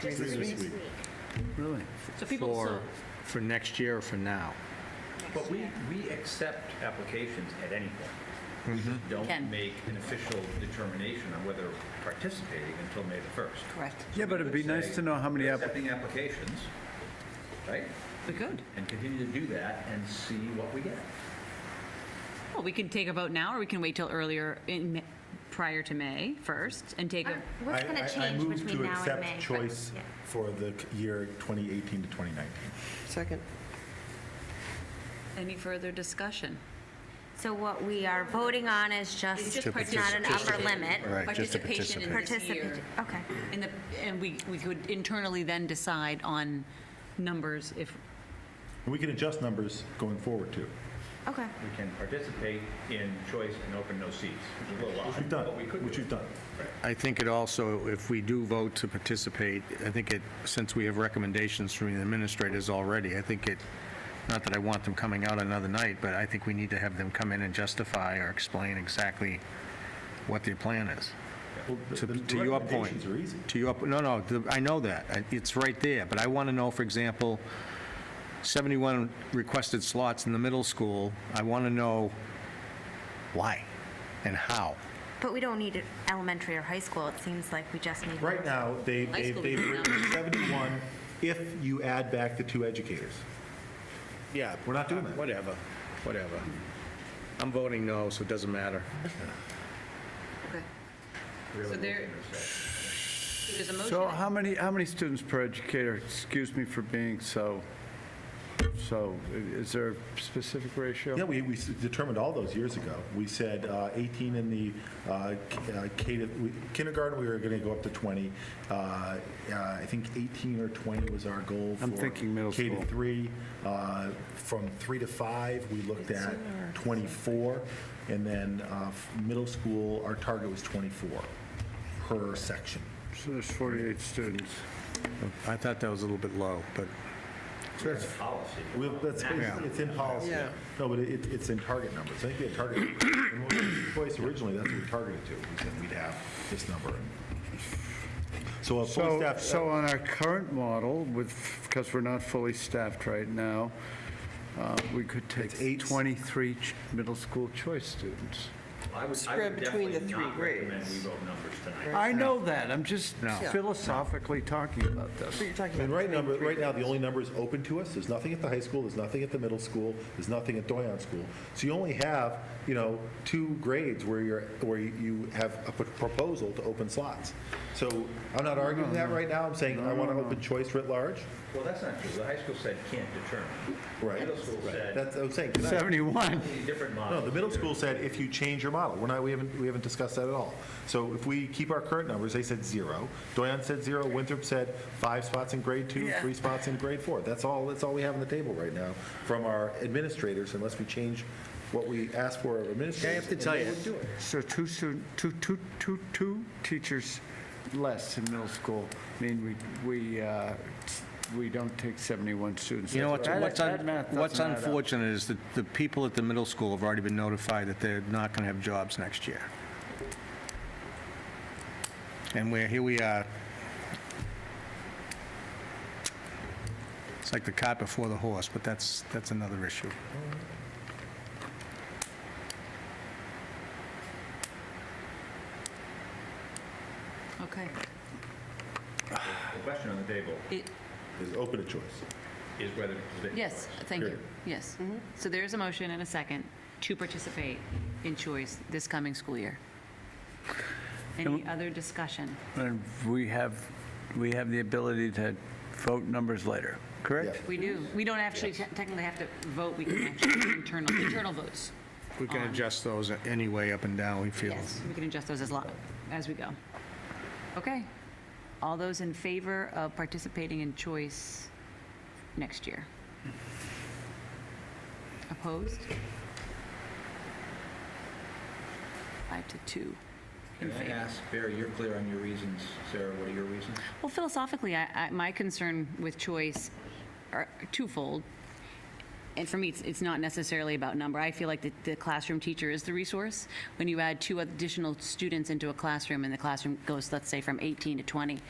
Three Just this this week. week. Really? So people For, still- for next year or for now? But we, we accept applications at any point. Mm-hmm. Just Don't Can. make an official determination on whether participating until May the 1st. Correct. Yeah, but it'd be nice to know how many, We're app- Accepting applications, right? We could. And continue to do that and see what we get. Well, we could take a vote now, or we can wait till earlier in, Ma- prior to May 1st and take a, I- Uh, What's going I- to change between now I and move to May? accept choice for the c- year 2018 to 2019. Second. any further discussion? So what we are voting on is It's just, just it's not an upper participate. limit. Right, just to Participation in this year. Participate, okay. And the, and we, we could internally then decide on numbers if, And we can adjust numbers going forward, too. Okay. We can participate in choice and open no seats, which is a little odd. Which we've done, but we could which do we've done. I think it also, if we do vote to participate, I think it, since we have recommendations from the administrators already, I think it, not that I want them coming out another night, but I think we need to have them come in and justify or explain exactly what their plan is. Well, the- To the- the to your point. recommendations are easy. To your, no, no, the- I know that. I- It's right there. But I want to know, for example, 71 requested slots in the middle school. I want to know why and how. But we don't need it elementary or high school. It seems like we just need. Right now, they- High they- school they've is written not. 71 if you add back the two educators. Yeah. We're not doing that. Whatever, whatever. I'm voting no, so it doesn't matter. okay. Really So there- open no seats. There's a motion. So how many, how many students per educator? Excuse me for being so, so, i- is there a specific ratio? Yeah, we, we s- determined all those years ago. We said uh, 18 in the uh, k- uh, K to- we- kindergarten, we were going to go up to 20. Uh, uh, I think 18 or 20 was our goal for. I'm thinking middle K to school. three. Uh, From three to five, we looked at 24. And then uh, f- middle school, our target was 24 per section. So there's 48 students. I thought that was a little bit low, but Policy. We- That's, Yeah. it's in policy. Yeah. No, but it, it's in target numbers. I think we had target, when we did choice originally, that's what we targeted to. We said we'd have this number. So a fully So, staffed, so on our current model with, because we're not fully staffed right now, uh, we could It's eight take s- 23 ch- middle school choice students. I would- I Spread would between the definitely three not recommend grades. we vote numbers tonight. I know that, I'm just No. Yeah. philosophically talking about this. So you're talking I mean, about. right number, between right three now, the grades. only numbers open to us, there's nothing at the high school, there's nothing at the middle school, there's nothing at Doyon School. So you only have, you know, two grades where you're, where you have a p- proposal to open slots. So I'm not arguing that right now. I'm saying I want to open choice writ large. Well, that's not true. The high school said can't determine. Right. Middle school said. That's, I was saying. can I- 71. completely Different model. No, the middle here. school said if you change your model, we're not, we haven't, we haven't discussed that at all. So if we keep our current numbers, they said zero, Doyon said zero, Winthrop said five spots in grade two, three spots in grade four. That's all, that's all we have on the table right now from our administrators unless we change what we ask for of administrators. and they wouldn't do it. So two student, two, two, two, two teachers less in middle school, mean we, we, uh, we don't take 71 students. you know what's, That- what's that math un- doesn't what's add up. unfortunate is that the people at the middle school have already been notified that they're not going to have jobs next year. And we're, here we are. It's like the cart before the horse, but that's, that's another issue. uh, Okay. The question on the table It- Is open to choice. is whether to participate. Yes, thank you, Period. yes. So there's a motion and a second to participate in choice this coming school year. Any other discussion? And we have, we have the ability to vote numbers later, correct? We do, we don't actually te- technically have to vote, we can actually do internal, internal votes. We can Um, adjust those anyway, up and down, we feel. Yes, we can adjust those as lo, as we go. Okay. All those in favor of participating in choice next year? Opposed? Five to two. Can I ask, Barry, you're clear on your reasons. Sarah, what are your reasons? Well, philosophically, I, I, my concern with choice are twofold. And for me, it's, it's not necessarily about number. I feel like the, the classroom teacher is the resource. When you add two additional students into a classroom and the classroom goes, let's say, from 18 to 20,